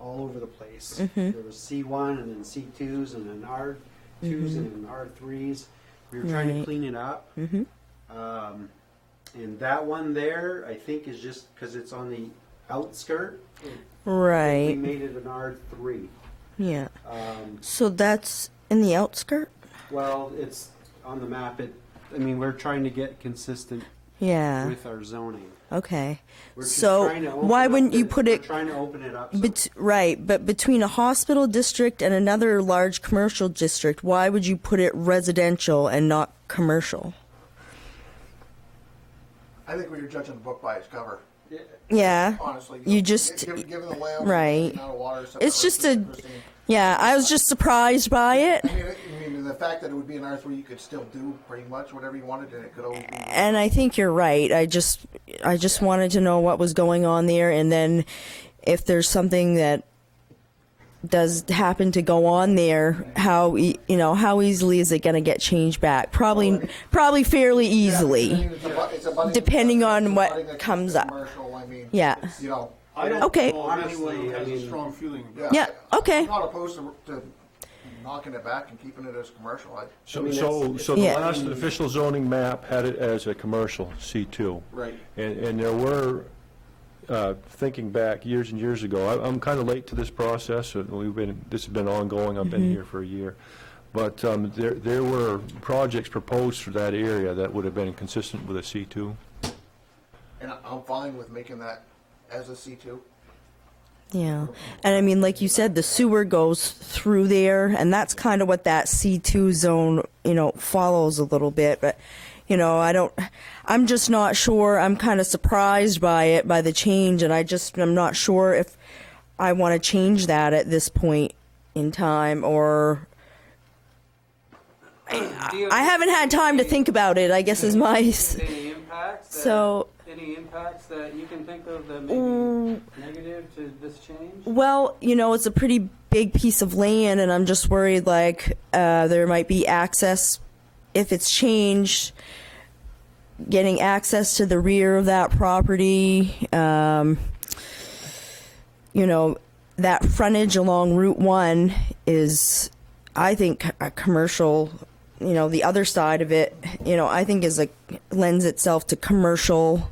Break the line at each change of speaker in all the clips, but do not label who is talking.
all over the place.
Mm-hmm.
There was C1 and then C2s and then R2s and then R3s. We were trying to
Mm-hmm. Right. Mm-hmm.
clean it up. Um, and that one there, I think, is just because it's on the outskirt. We
Right.
made it an R3.
Yeah.
Um,
So that's in the outskirt?
well, it's on the map. It, I mean, we're trying to get consistent
Yeah.
with our zoning.
Okay.
We're just
Uh-huh. So
trying to open
why
up
wouldn't
the-
you put
we're
it
Trying to open it up. so-
bet- right, but between a hospital district and another large commercial district, why would you put it residential and not commercial?
I think we were judging the book by its cover,
Yeah.
honestly.
You just-
Given, given the layout,
right.
amount of water, so
It's just a
interesting.
Yeah, I was just surprised by it.
I mean, it- I mean, the fact that it would be an R three, you could still do pretty much whatever you wanted, and it could always be.
and I think you're right. I just I just wanted to know what was going on there, and then if there's something that does happen to go on there, how e- you know how easily is it going to get changed back? Probably probably fairly
I mean,
easily.
it's a bu- it's a budding-
Depending on
it's a
what
budding
comes up.
Commercial, I mean,
Yeah.
it's, You know.
I don't
Okay.
know, honestly,
Honestly, I
has a
mean-
strong feeling.
Yeah, okay.
I'm not opposed to, to knocking it back and keeping it as commercial. I,
I
So,
mean,
so,
that's-
so the
Yeah.
last official zoning map had it as a commercial, C2.
Right.
And, and there were, uh, thinking back years and years ago, I- I'm kind of late to this process, and we've been, this has been ongoing, I've been here for a year. But um, there, there were projects proposed for that area that would have been consistent with a C2.
and I- I'm fine with making that as a C two.
Yeah, and I mean, like you said, the sewer goes through there, and that's kind of what that C two zone, you know, follows a little bit. But you know, I don't. I'm just not sure. I'm kind of surprised by it, by the change, and I just I'm not sure if I want to change that at this point in time, or I haven't had time to think about it. I guess is my. s-
Any impacts? that-
So-
Any impacts that you can think of that may be negative to this change?
Well, you know, it's a pretty big piece of land, and I'm just worried like uh, there might be access if it's changed. Getting access to the rear of that property, um, you know, that frontage along Route One is, I think, a commercial. You know, the other side of it, you know, I think is a lends itself to commercial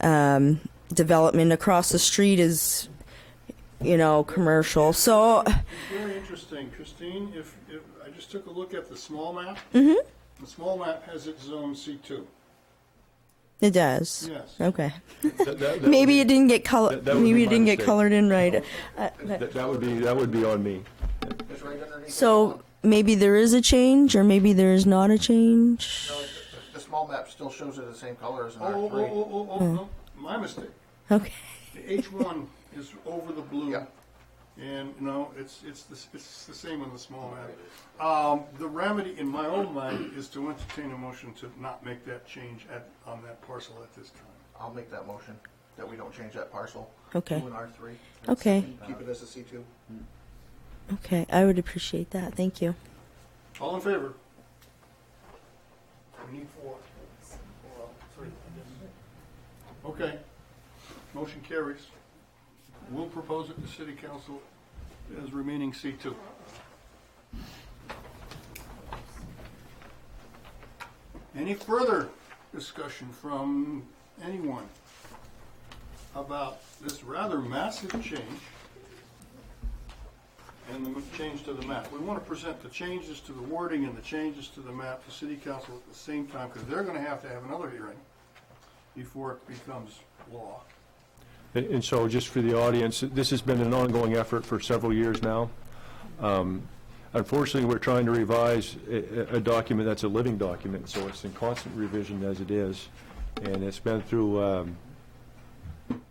um, development. Across the street is you know, commercial. So,
Very interesting, Christine, if, if, I just took a look at the small map.
Mm-hmm.
The small map has its zone C2,
it does.
yes.
Okay.
That- that- that would
Maybe
be-
it didn't get color.
That- that would be
Maybe it
my
didn't get
mistake.
colored in right. Uh,
That that would be, that would be on me.
It's right underneath.
so maybe there is a change, or maybe there is not a change.
the, the small map still shows it the same color as an
Oh, oh,
R
oh,
three.
oh, oh, oh,
Mm.
no, my mistake.
Okay.
The H1 is over the blue.
Yeah.
And no, it's, it's, the, s- it's the same on the small map. Um, the remedy in my own mind is to entertain a motion to not make that change at, on that parcel at this time.
I'll make that motion that we don't change that parcel.
Okay.
To an R three.
Okay.
Keep it as a C two.
Okay. I would appreciate that. Thank you.
All in favor? We need four. Well, three, I guess. Okay, motion carries. We'll propose it to city council as remaining C two. Any further discussion from anyone about this rather massive change? and the change to the map. We want to present the changes to the wording and the changes to the map to city council at the same time, because they're going to have to have another hearing before it becomes law.
And- And so, just for the audience, this has been an ongoing effort for several years now. Um, Unfortunately, we're trying to revise a a- a document that's a living document, so it's in constant revision as it is. And it's been through um,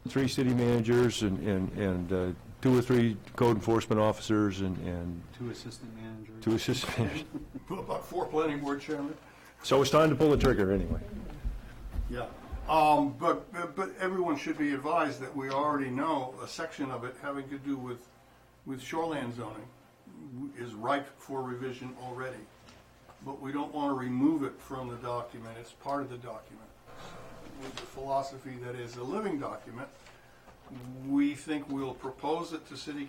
three city managers and- and and uh, two or three code enforcement officers and- and
Two assistant managers.
two assistant managers.
About four planning board chairmen.
So it's time to pull the trigger, anyway.
Yeah. Um, but, but- but everyone should be advised that we already know a section of it having to do with, with shoreline zoning is ripe for revision already. But we don't want to remove it from the document, it's part of the document. With the philosophy that is a living document, we think we'll propose it to city